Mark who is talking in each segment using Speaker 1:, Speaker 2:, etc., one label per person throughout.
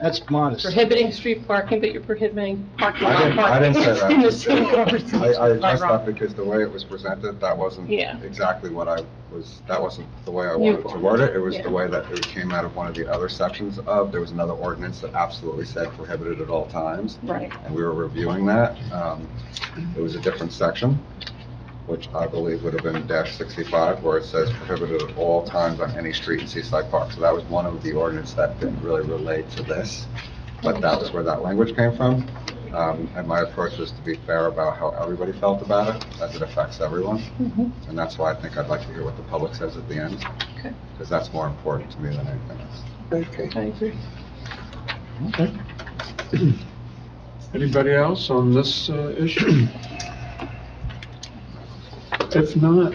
Speaker 1: That's modest.
Speaker 2: prohibiting street parking, but you're prohibiting parking
Speaker 3: I
Speaker 2: on
Speaker 3: didn't- I
Speaker 2: parking.
Speaker 3: didn't say that.
Speaker 2: In the same
Speaker 3: I,
Speaker 2: conversation.
Speaker 3: I addressed
Speaker 2: Am I wrong?
Speaker 3: that because the way it was presented, that wasn't
Speaker 2: Yeah.
Speaker 3: exactly what I was, that wasn't the way I
Speaker 2: You-
Speaker 3: wanted to word it. It was
Speaker 2: Yeah.
Speaker 3: the way that it came out of one of the other sections of, there was another ordinance that absolutely said prohibited at all times,
Speaker 2: Right.
Speaker 3: and we were reviewing that. Um, It was a different section, which I believe would have been dash sixty-five, where it says prohibited at all times on any street in Seaside Park. So that was one of the ordinance that didn't really relate to this, but that was where that language came from. Um, And my approach was to be fair about how everybody felt about it, as it affects everyone.
Speaker 2: Mhm.
Speaker 3: And that's why I think I'd like to hear what the public says at the end,
Speaker 2: Okay.
Speaker 3: because that's more important to me than anything else.
Speaker 2: Okay. I agree.
Speaker 4: Okay. Anybody else on this uh, issue? If not,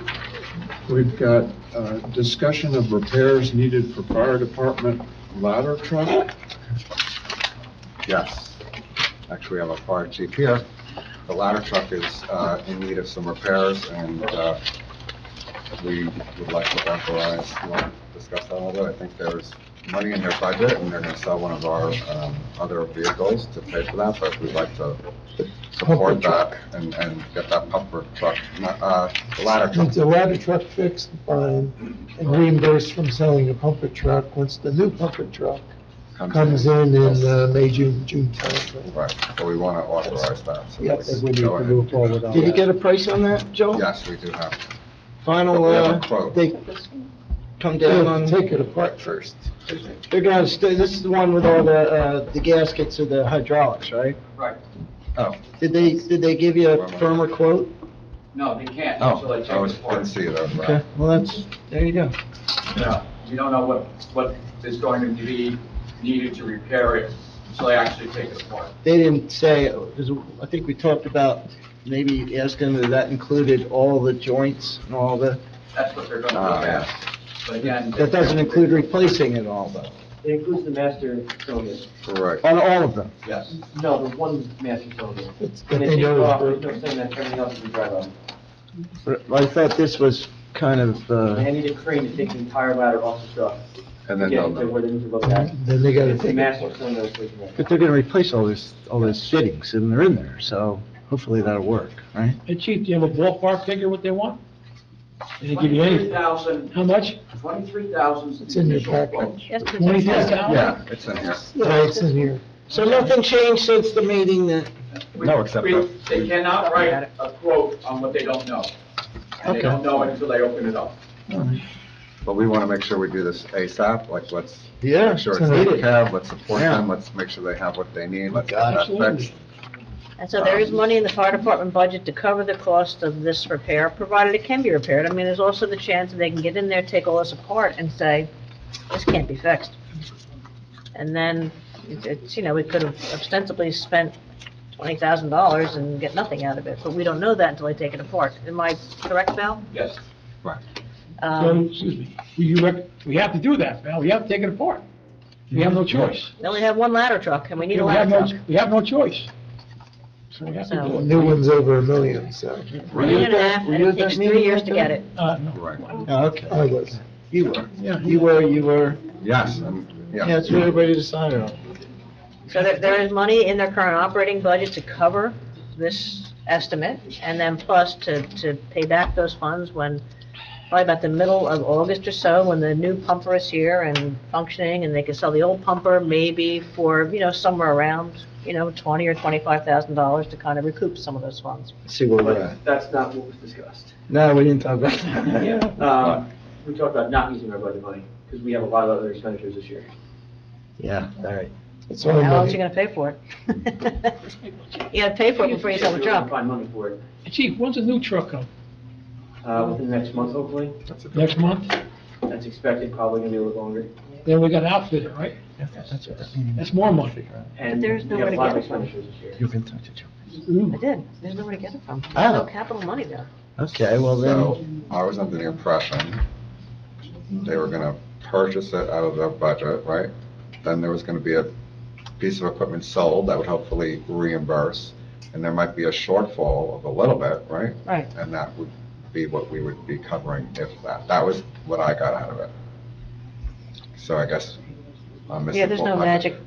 Speaker 4: we've got uh, discussion of repairs needed for fire department ladder truck.
Speaker 3: Yes. Actually, I have a fire chief here. The ladder truck is uh, in need of some repairs, and uh, we would like to authorize, you want to discuss that a little bit? I think there's money in their budget, and they're going to sell one of our um, other vehicles to pay for that, but we'd like to support that and and get that pumper truck, not, uh, the ladder truck.
Speaker 5: Once the ladder truck fixed, fine, and reimbursed from selling a pumper truck, once the new pumper truck comes in in uh, May, June, June timeframe.
Speaker 3: Right, but we want to authorize that. so
Speaker 5: Yes, we
Speaker 3: we
Speaker 5: need
Speaker 3: go
Speaker 5: to
Speaker 3: ahead.
Speaker 5: move forward on
Speaker 1: Did you get
Speaker 5: that.
Speaker 1: a price on that, Joe?
Speaker 3: Yes, we do have.
Speaker 1: Final,
Speaker 3: We have a
Speaker 1: uh,
Speaker 3: quote.
Speaker 1: they come
Speaker 5: They
Speaker 1: down
Speaker 5: have to
Speaker 1: on,
Speaker 5: Take it apart first.
Speaker 1: they're gonna stay, this is the one with all the, uh, the gaskets or the hydraulics, right?
Speaker 6: Right.
Speaker 3: Oh.
Speaker 1: Did they, did they give you a firmer quote?
Speaker 6: No, they can't
Speaker 3: Oh,
Speaker 6: until
Speaker 3: I
Speaker 6: they check
Speaker 3: was-
Speaker 6: the
Speaker 3: didn't
Speaker 6: parts.
Speaker 3: see it, I'm
Speaker 1: Okay,
Speaker 3: right.
Speaker 1: well, that's, there you go.
Speaker 6: No, You don't know what, what is going to be needed to repair it until they actually take it apart.
Speaker 1: They didn't say, because I think we talked about maybe asking if that included all the joints and all the,
Speaker 6: That's what they're going to
Speaker 3: Ah,
Speaker 6: look at. But again.
Speaker 1: that doesn't include replacing it all though,
Speaker 7: It includes the master zone.
Speaker 3: Correct.
Speaker 1: on all of them.
Speaker 6: Yes.
Speaker 7: No, the one master zone.
Speaker 5: It's
Speaker 7: And they
Speaker 5: they
Speaker 7: take
Speaker 5: know
Speaker 7: off,
Speaker 5: it's
Speaker 7: there's no saying that everything else is drive on.
Speaker 1: But I thought this was kind of,
Speaker 7: They
Speaker 1: uh,
Speaker 7: need a crane to take the entire ladder off the truck.
Speaker 3: And
Speaker 7: to
Speaker 3: then
Speaker 7: Get
Speaker 3: they'll
Speaker 7: it to
Speaker 3: know.
Speaker 7: where they need to look at.
Speaker 5: broken. Then they gotta
Speaker 7: It's the
Speaker 5: take it.
Speaker 7: master zone that's looking at.
Speaker 1: but they're gonna replace all this, all those fittings and they're in there, so hopefully that'll work, right?
Speaker 8: Hey, Chief, do you have a ballpark figure what they want? They didn't give you
Speaker 6: Twenty-three
Speaker 8: anything.
Speaker 6: thousand,
Speaker 8: How much?
Speaker 6: twenty-three thousand.
Speaker 5: It's in your packet.
Speaker 8: Twenty-three thousand?
Speaker 3: Yeah, it's in here.
Speaker 5: Yeah, it's in here.
Speaker 1: So nothing changed since the meeting then?
Speaker 3: No, except
Speaker 6: We-
Speaker 3: that-
Speaker 6: They cannot write a quote on what they don't know. And they
Speaker 1: Okay.
Speaker 6: don't know it until they open it up.
Speaker 3: But we want to make sure we do this ASAP, like, let's
Speaker 1: Yeah.
Speaker 3: make sure
Speaker 1: it's
Speaker 3: it's in the
Speaker 1: needed.
Speaker 3: cab, let's support
Speaker 1: Yeah.
Speaker 3: them, let's make sure they have what they need, let's get that
Speaker 8: Absolutely.
Speaker 3: fixed.
Speaker 9: And so there is money in the fire department budget to cover the cost of this repair, provided it can be repaired. I mean, there's also the chance that they can get in there, take all this apart and say, this can't be fixed. And then it's- it's, you know, we could have ostensibly spent twenty thousand dollars and get nothing out of it, but we don't know that until they take it apart. Am I correct, Mel?
Speaker 6: Yes.
Speaker 8: So,
Speaker 9: Um,
Speaker 8: excuse me, you, rec- we have to do that, Val, we have to take it apart. We have no choice.
Speaker 9: Then we have one ladder truck and we need
Speaker 8: We
Speaker 9: a
Speaker 8: have
Speaker 9: ladder
Speaker 8: no,
Speaker 9: truck.
Speaker 8: we have no choice. So we have to do
Speaker 9: So-
Speaker 8: it.
Speaker 5: New one's over a million, so
Speaker 9: A year and a half, and it takes three years to get it.
Speaker 8: Uh, no.
Speaker 3: Right.
Speaker 1: Oh, Okay.
Speaker 5: I was.
Speaker 1: You were,
Speaker 8: Yeah.
Speaker 1: you were, you were,
Speaker 3: Yes, and,
Speaker 1: yeah,
Speaker 3: yeah.
Speaker 1: that's what everybody decided on.
Speaker 9: So there, there is money in their current operating budget to cover this estimate, and then plus to, to pay back those funds when, probably about the middle of August or so, when the new pumper is here and functioning, and they can sell the old pumper maybe for, you know, somewhere around, you know, twenty or twenty-five thousand dollars to kind of recoup some of those funds.
Speaker 1: Let's See where we're at.
Speaker 7: But that's not what was discussed.
Speaker 1: No, we didn't talk about that. Uh,
Speaker 7: Um, we talked about not using our budget money, because we have a lot of other expenditures this year.
Speaker 1: Yeah, all right.
Speaker 5: It's
Speaker 9: How
Speaker 5: all
Speaker 9: else you
Speaker 5: money.
Speaker 9: gonna pay for it? You gotta pay for it before you sell the
Speaker 7: We can
Speaker 9: truck.
Speaker 7: Find money for it,
Speaker 8: Chief, when's the new truck come?
Speaker 7: uh, within the next month, hopefully.
Speaker 8: Next month?
Speaker 7: That's expected, probably gonna be a little longer.
Speaker 8: Then we got an outfit, right? That's more money.
Speaker 7: And we
Speaker 9: there's
Speaker 7: have
Speaker 9: nowhere
Speaker 7: a
Speaker 9: to
Speaker 7: lot
Speaker 9: get
Speaker 7: of
Speaker 9: it from.
Speaker 7: expenditures this year.
Speaker 1: You can talk to Joe.
Speaker 9: I did, there's nowhere to get it from.
Speaker 1: Oh.
Speaker 9: No capital money though.
Speaker 1: Okay, well then,
Speaker 3: So I was under the impression they were going to purchase it out of their budget, right? Then there was going to be a piece of equipment sold that would hopefully reimburse, and there might be a shortfall of a little bit, right?
Speaker 9: Right.
Speaker 3: And that would be what we would be covering if that, that was what I got out of it. So I guess I'm missing.
Speaker 9: Yeah, there's no
Speaker 3: full-
Speaker 9: magic